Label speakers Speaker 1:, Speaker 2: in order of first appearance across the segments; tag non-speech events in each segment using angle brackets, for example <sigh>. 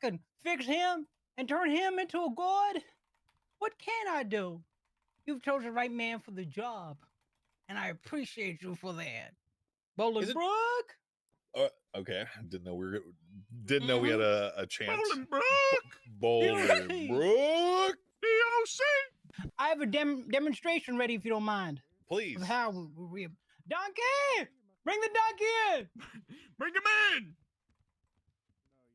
Speaker 1: can fix him and turn him into a god. What can I do? You've chosen the right man for the job, and I appreciate you for that. Bolingbrook?
Speaker 2: Okay, <laughs> didn't know we were didn't know we had a, a chance.
Speaker 3: Bolingbrook,
Speaker 2: <laughs> Bolingbrook,
Speaker 3: DOC.
Speaker 1: I have a dem- demonstration ready if you don't mind.
Speaker 2: please.
Speaker 1: Of how we- we. Donkey! Bring the donkey
Speaker 3: Bring him in.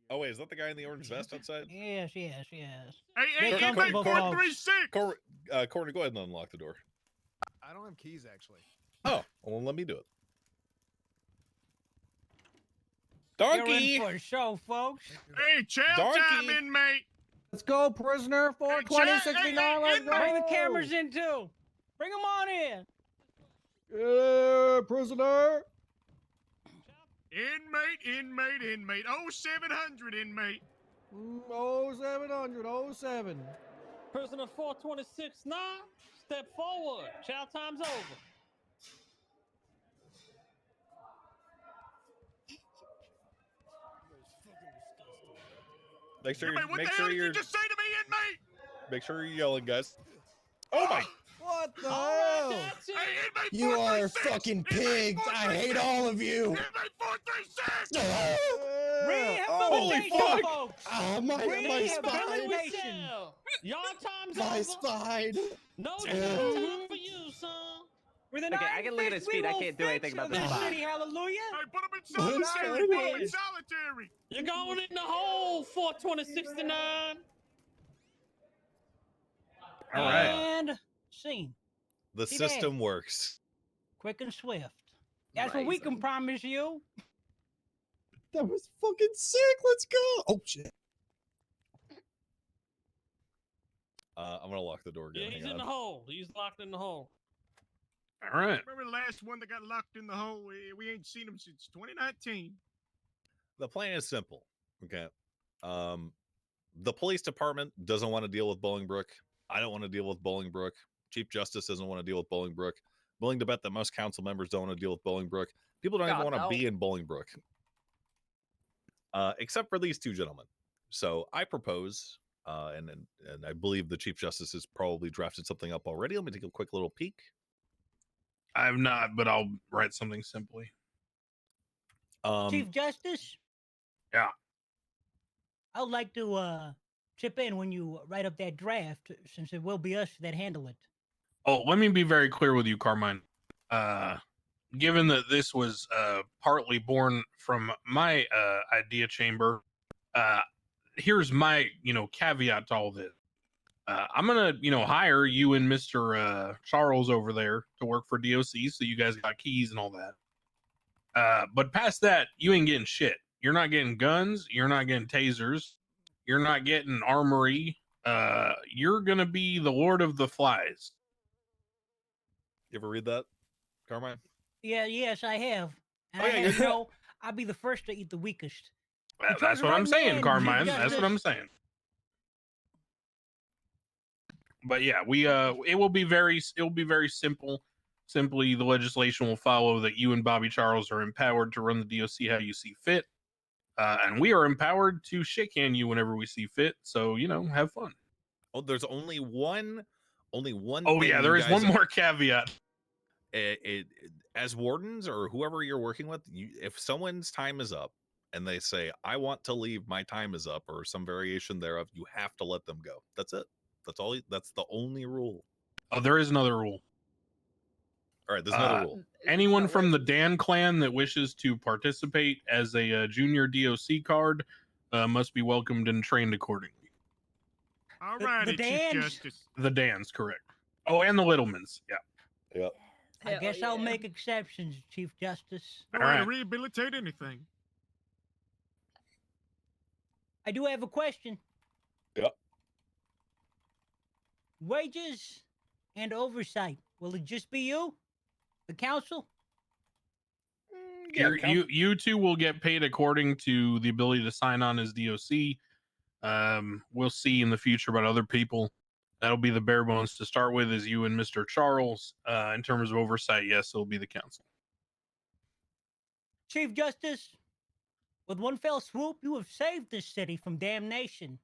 Speaker 2: Oh wait, is that the guy in the orange vest outside?
Speaker 1: in! Yes, yes, yes.
Speaker 3: Hey, hey,
Speaker 2: They're
Speaker 3: hey,
Speaker 2: comfortable
Speaker 3: four three six.
Speaker 2: Cor- uh, Corner, go ahead and unlock the door.
Speaker 4: I don't have keys actually.
Speaker 2: Oh, well, let me do it.
Speaker 1: You're in
Speaker 2: Donkey,
Speaker 1: for a show, folks.
Speaker 3: Hey, chow time,
Speaker 2: Donkey.
Speaker 3: inmate.
Speaker 5: Let's go, prisoner.
Speaker 3: Hey,
Speaker 5: 420,
Speaker 3: Chad, hey,
Speaker 5: 69.
Speaker 3: hey,
Speaker 5: Let's
Speaker 3: inmate.
Speaker 5: go.
Speaker 1: Bring the cameras in too. Bring them on in.
Speaker 5: Yeah, prisoner.
Speaker 3: Inmate, inmate, inmate. Oh, 700, inmate.
Speaker 5: Mm, Oh, 0700, oh, 07.
Speaker 6: Prisoner 426 now, step forward. Chow time's over.
Speaker 2: make sure
Speaker 3: Inmate,
Speaker 2: you're,
Speaker 3: what
Speaker 2: make
Speaker 3: the hell
Speaker 2: sure
Speaker 3: did
Speaker 2: you're
Speaker 3: you just say to me, inmate?
Speaker 2: make sure you're yelling, guys. Oh my!
Speaker 5: What the
Speaker 6: All
Speaker 5: hell?
Speaker 6: right, that's it.
Speaker 3: Hey, inmate,
Speaker 7: You are
Speaker 3: 436.
Speaker 7: fucking
Speaker 3: Inmate
Speaker 7: pigs. I hate all of you.
Speaker 3: 436. Inmate 436.
Speaker 5: Yeah. Oh.
Speaker 1: Rehabilitation,
Speaker 2: fuck.
Speaker 1: folks.
Speaker 7: Oh my, my spine.
Speaker 1: Rehabilitation.
Speaker 6: Rehabilitation. Y'all time's
Speaker 7: My
Speaker 6: over.
Speaker 7: spine.
Speaker 6: No jail
Speaker 7: Damn.
Speaker 6: time for you, son.
Speaker 1: With an
Speaker 8: Okay,
Speaker 1: iron
Speaker 8: I can look at his
Speaker 1: fist, we
Speaker 8: feet. I
Speaker 1: will
Speaker 8: can't do
Speaker 1: fix
Speaker 8: anything about
Speaker 1: this
Speaker 8: this bot.
Speaker 1: city, hallelujah.
Speaker 3: Hey, put him in
Speaker 7: What's
Speaker 3: solitary. Put him
Speaker 1: going on?
Speaker 3: in solitary.
Speaker 6: You're going in the hole, 42069.
Speaker 2: All right,
Speaker 1: And scene.
Speaker 2: the
Speaker 1: Too bad.
Speaker 2: system works.
Speaker 1: Quick and swift. That's what we can
Speaker 8: Amazing.
Speaker 1: promise you.
Speaker 7: That was fucking sick. Let's go. Oh shit.
Speaker 2: Uh, I'm gonna lock the door
Speaker 6: Yeah,
Speaker 2: again.
Speaker 6: he's
Speaker 2: Hang
Speaker 6: in the
Speaker 2: on.
Speaker 6: hole. He's locked in the hole.
Speaker 3: All right. Remember the last one that got locked in the hole? We, we ain't seen him since 2019.
Speaker 2: the plan is simple. Okay. Um, the police department doesn't want to deal with Bolingbrook. I don't want to deal with Bolingbrook. Chief Justice doesn't want to deal with Bolingbrook. Willing to bet that most council members don't want to deal with Bolingbrook. People don't even
Speaker 8: God,
Speaker 2: want to
Speaker 8: no.
Speaker 2: be in Bolingbrook, uh, except for these two gentlemen. So I propose, uh, and, and and I believe the Chief Justice has probably drafted something up already. Let me take a quick little peek.
Speaker 3: I have not, but I'll write something simply.
Speaker 2: Um,
Speaker 1: Chief Justice.
Speaker 3: Yeah.
Speaker 1: I would like to uh chip in when you write up that draft, since it will be us that handle it.
Speaker 9: Oh, let me be very clear with you, Carmine. Uh, given that this was uh, partly born from my uh, idea chamber, uh, here's my you know caveat to all this. Uh, I'm gonna you know hire you and Mister uh, Charles over there to work for DOC, so you guys got keys and all that. Uh, but past that, you ain't getting shit. You're not getting guns. You're not getting tasers. You're not getting armory. Uh, you're gonna be the Lord of the Flies.
Speaker 2: you ever read that, Carmine?
Speaker 1: Yeah, yes, I have. And
Speaker 2: Oh,
Speaker 1: I
Speaker 2: yeah,
Speaker 1: have
Speaker 2: you're-
Speaker 1: to know I'll be the first to eat the weakest.
Speaker 9: That-
Speaker 1: Because
Speaker 9: that's
Speaker 1: the
Speaker 9: what I'm
Speaker 1: right man
Speaker 9: saying,
Speaker 1: is
Speaker 9: Carmine. That's
Speaker 1: justice.
Speaker 9: what I'm saying. But yeah, we uh, it will be very, it will be very simple. Simply, the legislation will follow that you and Bobby Charles are empowered to run the DOC how you see fit, uh, and we are empowered to shake hand you whenever we see fit. So you know, have fun.
Speaker 2: Oh, there's only one, only one.
Speaker 9: Oh
Speaker 2: thing
Speaker 9: yeah,
Speaker 2: you
Speaker 9: there is
Speaker 2: guys
Speaker 9: one more caveat.
Speaker 2: it, it, as wardens or whoever you're working with, you, if someone's time is up and they say, I want to leave, my time is up, or some variation thereof, you have to let them go. That's it. That's all. you- That's the only rule.
Speaker 9: Oh, there is another rule.
Speaker 2: All right. There's another
Speaker 9: Uh,
Speaker 2: rule.
Speaker 9: anyone from the Dan clan that wishes to participate as a uh, junior DOC card uh, must be welcomed and trained accordingly.
Speaker 3: All
Speaker 1: The-
Speaker 3: right,
Speaker 1: the
Speaker 3: Chief
Speaker 1: Dans.
Speaker 3: Justice.
Speaker 9: The Dan's correct. Oh, and the Littlemans. Yeah.
Speaker 2: Yep.
Speaker 1: I guess I'll make exceptions, Chief Justice.
Speaker 3: I
Speaker 9: All
Speaker 3: don't want to
Speaker 9: right.
Speaker 3: rehabilitate anything.
Speaker 1: I do have a question.
Speaker 2: Yep.
Speaker 1: Wages and oversight. Will it just be you? The council?
Speaker 3: Mm,
Speaker 9: You're- you you two will get paid according to the ability to sign on as DOC. Um, we'll see in the future about other people. That'll be the bare bones to start with, is you and Mr. Charles. Uh, in terms of oversight, yes, it'll be the council.
Speaker 1: Chief Justice, With one fell swoop, you have saved this city from damnation.